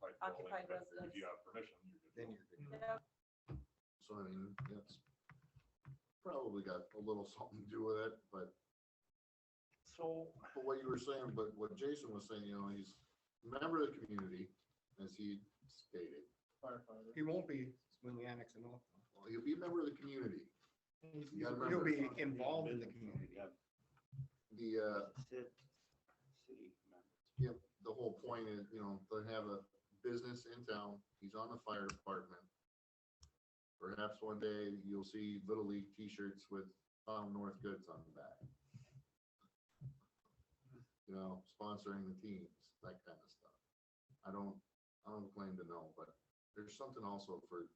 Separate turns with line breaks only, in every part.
private
but
residence.
If you have permission, you're
Then
good. to go.
you're good.
Yep,
So I mean, that's probably got a little something to do with it, but,
So,
but what you were saying, but what Jason was saying, you know, he's a member of the community, as he stated.
He won't be when we annex him off.
Well, he'll be a member of the community. You gotta
He'll
remember,
be involved in the community.
the, uh,
Sit- city members.
Yep, the whole point is, you know, they have a business in town, he's on the fire department. Perhaps one day you'll see Little League t-shirts with Tom North Goods on the back. You know, sponsoring the teams, that kind of stuff. I don't, I don't claim to know, but there's something also for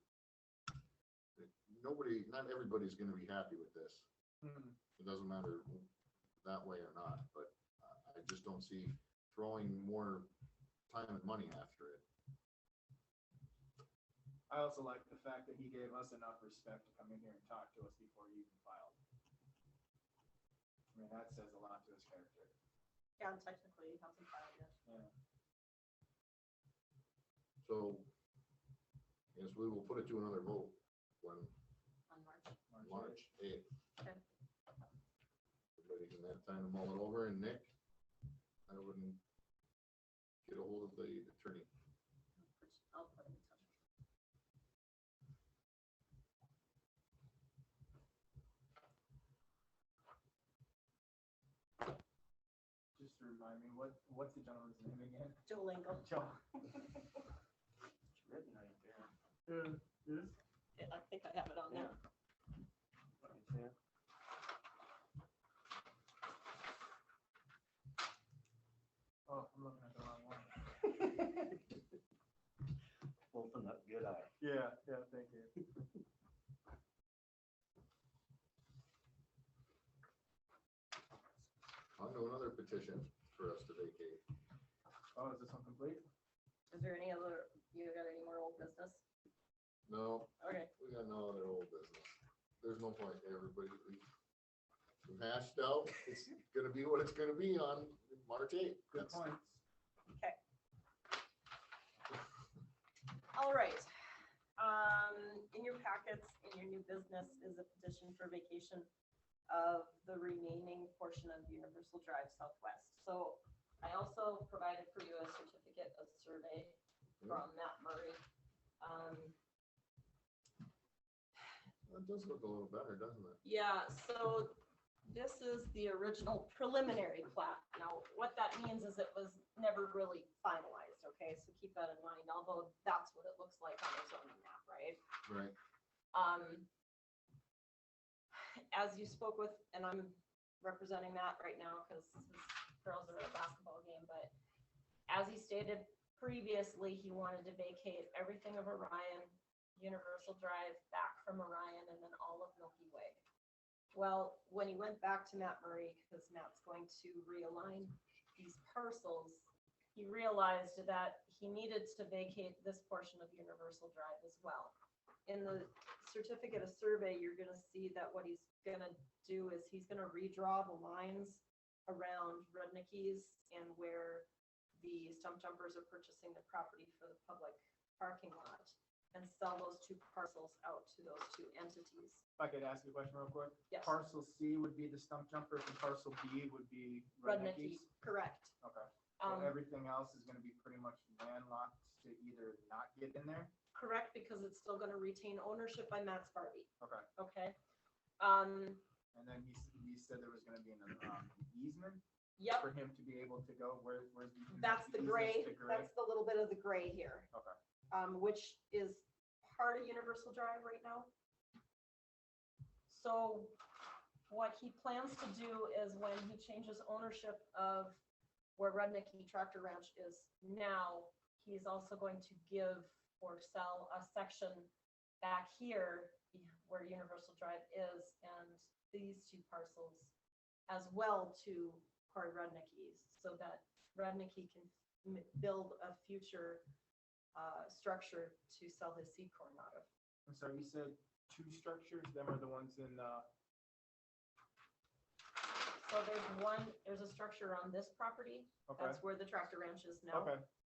nobody, not everybody's gonna be happy with this. It doesn't matter that way or not, but I- I just don't see throwing more time and money after it.
I also like the fact that he gave us enough respect to come in here and talk to us before he even filed. I mean, that says a lot to his character.
yeah, technically, he hasn't filed yet.
So yes, we will put it to another vote when
on March.
March
March eighth.
Okay.
Everybody can have time to mull it over and Nick, I wouldn't get a hold of the attorney.
which I'll put in touch.
eighth. Just to remind me, what, what's the gentleman's name again?
Joe Lingle,
Joe.
It's written right there.
I think I have it on there.
Right there.
Oh, I'm looking at the wrong one.
Open up good eye.
Yeah, yeah, thank you.
I'll do another petition for us to vacate.
Oh, is this one complete?
Is there any other, you got any more old business?
No,
Okay,
we got no other old business. There's no point, everybody. we- We've hashed out, it's gonna be what it's gonna be on March eighth.
Good point.
all right. Um, in your packets, in your new business is a petition for vacation of the remaining portion of Universal Drive Southwest. So I also provided for you a certificate of survey
Mm-hmm.
from Matt Murray. Um,
That does look a little better, doesn't it?
Yeah, so this is the original preliminary plat. Now, what that means is it was never really finalized, okay? So keep that in mind, although that's what it looks like on the zoning map, right?
Right.
Um, as you spoke with, and I'm representing Matt right now because his girls are at a basketball game, but as he stated previously, he wanted to vacate everything of Orion, Universal Drive back from Orion and then all of Milky Way. Well, when he went back to Matt Murray, because Matt's going to realign these parcels, he realized that he needed to vacate this portion of Universal Drive as well. In the certificate of survey, you're gonna see that what he's gonna do is he's gonna redraw the lines around Rudnicki's and where the stump jumpers are purchasing the property for the public parking lot and sell those two parcels out to those two entities.
If I could ask you a question real quick.
Yes,
Parcel C would be the stump jumpers and parcel B would be
Rudnicki,
Rudnicki's.
correct.
Okay. So
Um,
everything else is gonna be pretty much landlocked to either not get in there.
correct, because it's still gonna retain ownership by Matt's Barbie,
Okay.
okay? Um,
And then he, s- he said there was gonna be an um, easement
yep,
for him to be able to go, where, where's the? easement?
that's the gray,
Easement's the gray.
that's the little bit of the gray here.
Okay.
Um, which is part of Universal Drive right now. So what he plans to do is when he changes ownership of where Rudnicki Tractor Ranch is now, he's also going to give or sell a section back here where Universal Drive is and these two parcels as well to Cory Rudnicki's, so that Rudnicki can m- build a future uh, structure to sell his seed corn out of.
I'm sorry, you said two structures, them are the ones in, uh,
So there's one, there's a structure on this property,
okay,
that's where the tractor ranch is now.
okay,